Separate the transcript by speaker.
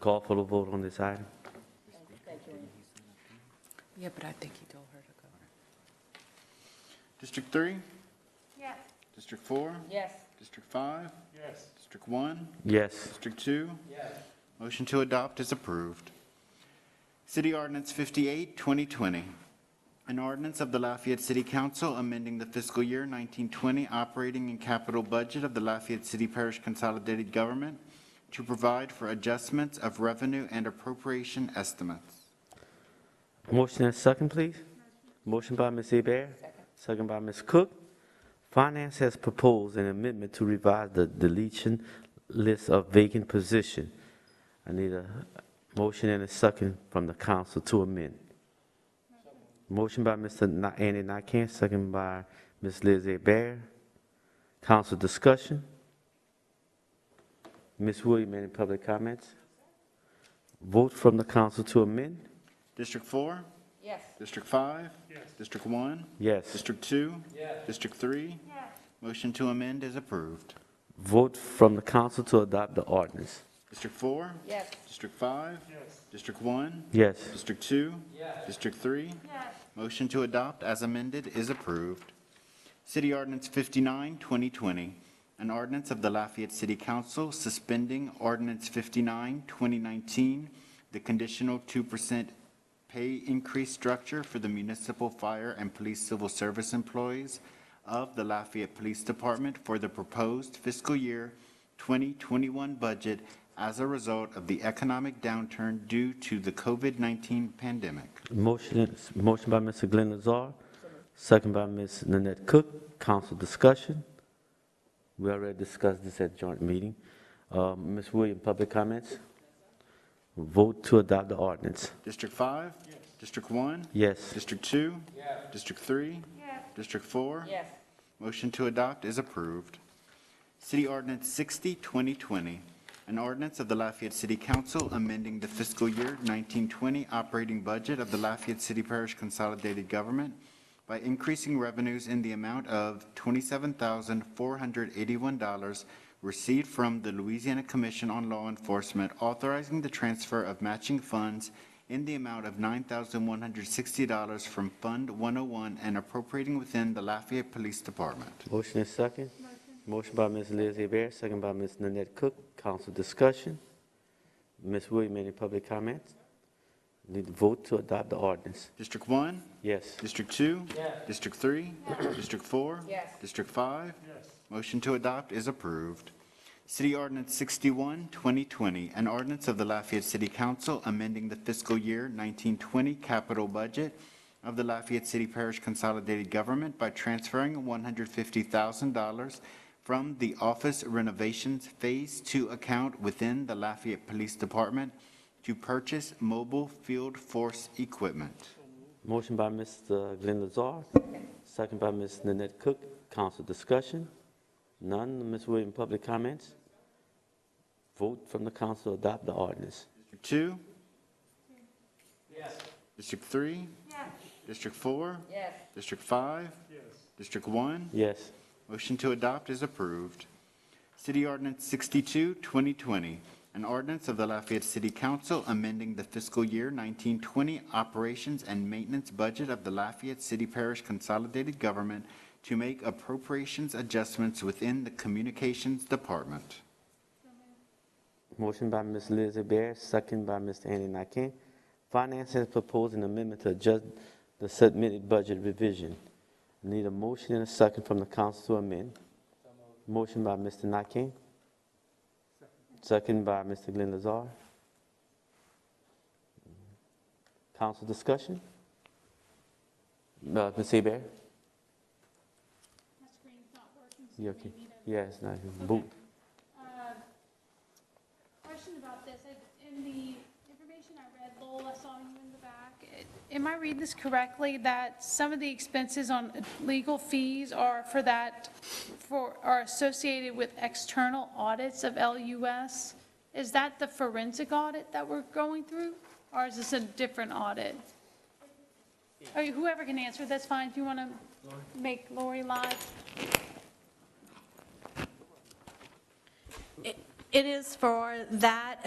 Speaker 1: Call for the vote on this item.
Speaker 2: Yeah, but I think he told her to go.
Speaker 3: District three?
Speaker 4: Yes.
Speaker 3: District four?
Speaker 4: Yes.
Speaker 3: District five? Yes. District one?
Speaker 1: Yes.
Speaker 3: District two? Yes. Motion to adopt is approved. City Ordinance 58, 2020. An ordinance of the Lafayette City Council amending the fiscal year 1920 operating and capital budget of the Lafayette City Parish Consolidated Government to provide for adjustments of revenue and appropriation estimates.
Speaker 1: Motion and second, please. Motion by Ms. Eber, second by Ms. Cook. Finance has proposed an amendment to revise the deletion list of vacant position. I need a motion and a second from the council to amend. Motion by Mr. Na- Andy Nakane, second by Ms. Liz Bear. Council discussion. Ms. Williams, any public comments? Vote from the council to amend?
Speaker 3: District four?
Speaker 4: Yes.
Speaker 3: District five? Yes. District one?
Speaker 1: Yes.
Speaker 3: District two? Yes. District three? Yes. Motion to amend is approved.
Speaker 1: Vote from the council to adopt the ordinance.
Speaker 3: District four?
Speaker 4: Yes.
Speaker 3: District five? Yes. District one?
Speaker 1: Yes.
Speaker 3: District two? Yes. District three?
Speaker 4: Yes.
Speaker 3: Motion to adopt as amended is approved. City Ordinance 59, 2020, an ordinance of the Lafayette City Council suspending Ordinance 59, 2019, the conditional 2% pay increase structure for the municipal fire and police civil service employees of the Lafayette Police Department for the proposed fiscal year 2021 budget as a result of the economic downturn due to the COVID-19 pandemic.
Speaker 1: Motion, motion by Mr. Glenn Lazar, second by Ms. Nanette Cook. Council discussion. We already discussed this at joint meeting. Uh, Ms. Williams, public comments? Vote to adopt the ordinance.
Speaker 3: District five? District one?
Speaker 1: Yes.
Speaker 3: District two? District three? District four?
Speaker 4: Yes.
Speaker 3: Motion to adopt is approved. City Ordinance 60, 2020, an ordinance of the Lafayette City Council amending the fiscal year 1920 operating budget of the Lafayette City Parish Consolidated Government by increasing revenues in the amount of $27,481 received from the Louisiana Commission on Law Enforcement, authorizing the transfer of matching funds in the amount of $9,160 from Fund 101 and appropriating within the Lafayette Police Department.
Speaker 1: Motion and second. Motion by Ms. Liz Bear, second by Ms. Nanette Cook. Council discussion. Ms. Williams, any public comments? Need to vote to adopt the ordinance.
Speaker 3: District 1?
Speaker 1: Yes.
Speaker 3: District 2? District 3? District 4?
Speaker 4: Yes.
Speaker 3: District 5? Motion to adopt is approved. City Ordinance 61, 2020, an ordinance of the Lafayette City Council amending the fiscal year 1920 capital budget of the Lafayette City Parish Consolidated Government by transferring $150,000 from the office renovations Phase 2 account within the Lafayette Police Department to purchase mobile field force equipment.
Speaker 1: Motion by Mr. Glenn Lazar, second by Ms. Nanette Cook. Council discussion? None. Ms. Williams, public comments? Vote from the council, to adopt the ordinance.
Speaker 3: District two? Yes. District three?
Speaker 4: Yes.
Speaker 3: District four?
Speaker 4: Yes.
Speaker 3: District five? Yes. District one?
Speaker 1: Yes.
Speaker 3: Motion to adopt is approved. City Ordinance 62, 2020, an ordinance of the Lafayette City Council amending the fiscal year 1920 operations and maintenance budget of the Lafayette City Parish Consolidated Government to make appropriations adjustments within the Communications Department.
Speaker 1: Motion by Ms. Liz Bear, second by Mr. Andy Nakane. Finance has proposed an amendment to adjust the submitted budget revision. Need a motion and a second from the council to amend. Motion by Mr. Nakane. Second by Mr. Glenn Lazar. Council discussion? Uh, Ms. Bear?
Speaker 5: My screen's not working, so
Speaker 1: You
Speaker 5: you
Speaker 1: okay?
Speaker 5: may need a.
Speaker 1: Yeah, it's not, boot.
Speaker 5: Uh, Question about this, I- in the information I read, Lowell, I saw you in the back. It- Am I reading this correctly, that some of the expenses on legal fees are for that, for, are associated with external audits of LUS? Is that the forensic audit that we're going through, or is this a different audit? Or Whoever can answer, that's fine, if you want to make Lori live.
Speaker 6: It is for that